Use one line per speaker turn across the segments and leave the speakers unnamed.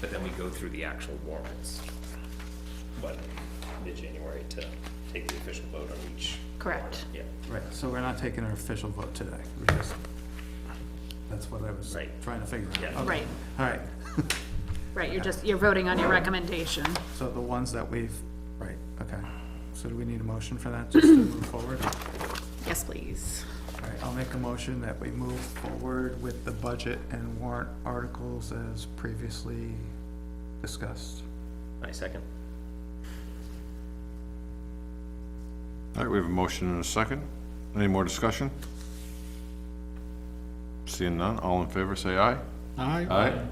but then we go through the actual warrants, what, mid-January to take the official vote on each.
Correct.
Yeah,
Right, so we're not taking an official vote today, we're just, that's what I was
Right.
trying to figure out.
Yeah.
Okay.
Right.
All right,
Right, you're just, you're voting on your recommendation.
so the ones that we've, right, okay. So do we need a motion for that, just to move forward?
Yes, please.
All right, I'll make a motion that we move forward with the budget and warrant articles as previously discussed.
I second.
All right, we have a motion and a second. Any more discussion? Seeing none, all in favor, say aye.
Aye.
Aye.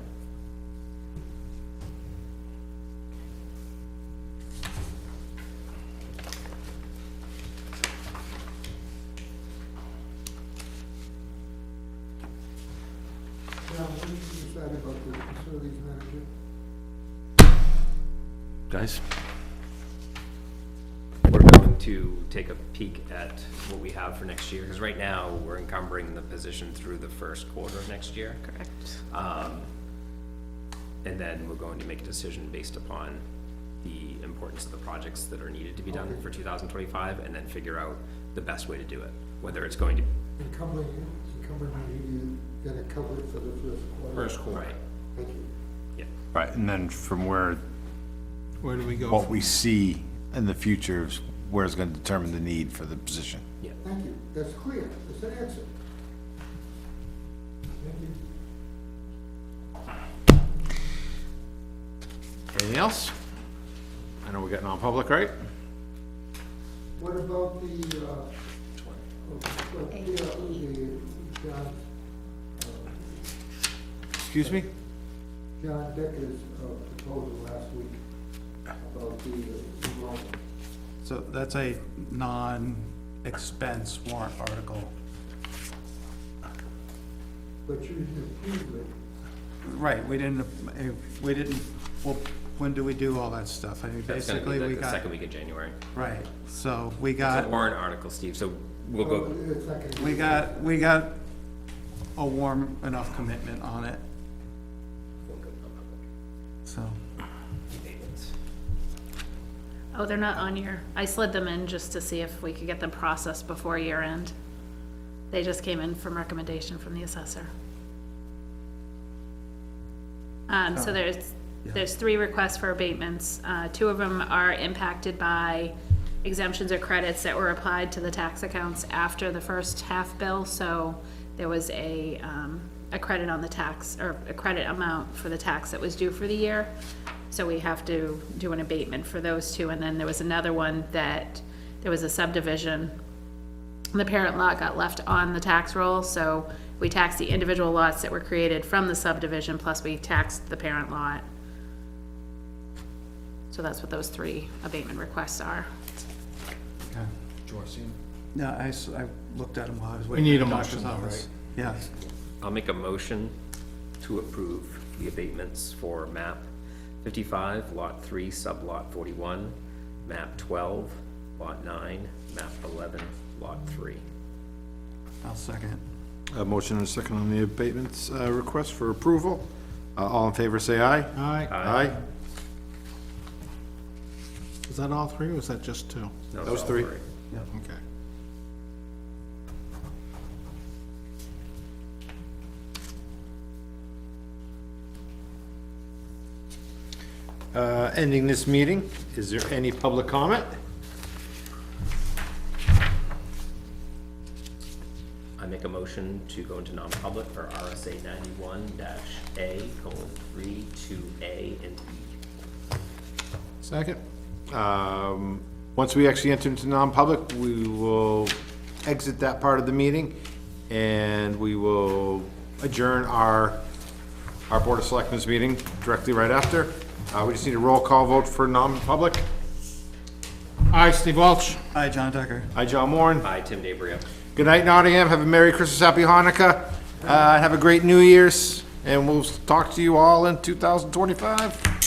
Now, what did you decide about the facilities manager?
Guys? We're going to take a peek at what we have for next year, because right now, we're encumbering the position through the first quarter of next year.
Correct.
Um, And then we're going to make a decision based upon the importance of the projects that are needed to be done for two thousand twenty-five, and then figure out the best way to do it, whether it's going to.
Encumbering, encumbering, you gotta cover it for the first quarter.
Right,
Thank you.
Yeah,
Right, and then from where,
Where do we go?
what we see in the future is where it's gonna determine the need for the position.
yeah.
Thank you, that's clear, that's an answer. Thank you.
anything else? I know we're getting on public, right?
What about the, uh? oh, What, yeah, the, uh, John,
Excuse me?
John Decker's uh, proposal last week about the, uh, enrollment.
So that's a non-expense warrant article.
but you didn't approve it.
Right, we didn't, eh, we didn't, well, when do we do all that stuff? I mean,
That's gonna be
basically, we
like the
got, Uh,
second week of January.
right, so we
It's a
got,
warrant article, Steve, so we'll go,
Oh.
It's like a-
we got, we got a warm enough commitment on it, so.
Oh, they're not on your, I slid them in just to see if we could get them processed before year end. They just came in from recommendation from the assessor. Um, so there's, there's three requests for abatements. Uh, two of them are impacted by exemptions or credits that were applied to the tax accounts after the first half bill. So there was a, um, a credit on the tax, or a credit amount for the tax that was due for the year. So we have to do an abatement for those two. And then there was another one that, there was a subdivision the parent lot got left on the tax roll, so we taxed the individual lots that were created from the subdivision, plus we taxed the parent lot. So that's what those three abatement requests are.
Okay. No, I, s- I looked at him while I was
need
waiting
a
for the doctor's
motion though,
office. Yes,
I'll make a motion to approve the abatements for map fifty-five, lot three, sublot forty-one, map twelve, lot nine, map eleven, lot three.
I'll second.
A motion and a second on the abatements, uh, request for approval. Uh, all in favor, say aye.
Aye.
Aye.
Is that all three, or is that just two?
No,
Those
all
three.
Okay.
Uh, ending this meeting, is there any public comment?
I make a motion to go into non-public for RSA ninety-one dash A colon three, two, A and E.
Second?
Um, Once we actually enter into non-public, we will exit that part of the meeting, and we will adjourn our, our Board of Selectmen's meeting directly right after. Uh, We just need a roll call vote for non-public.
Aye, Steve Walsh.
Hi, John Decker.
Hi, John Moran.
Aye, Tim DeBrio.
Good night, Nottingham. Have a Merry Christmas, Happy Hanukkah. Uh, Have a great New Year's, and we'll talk to you all in 2025.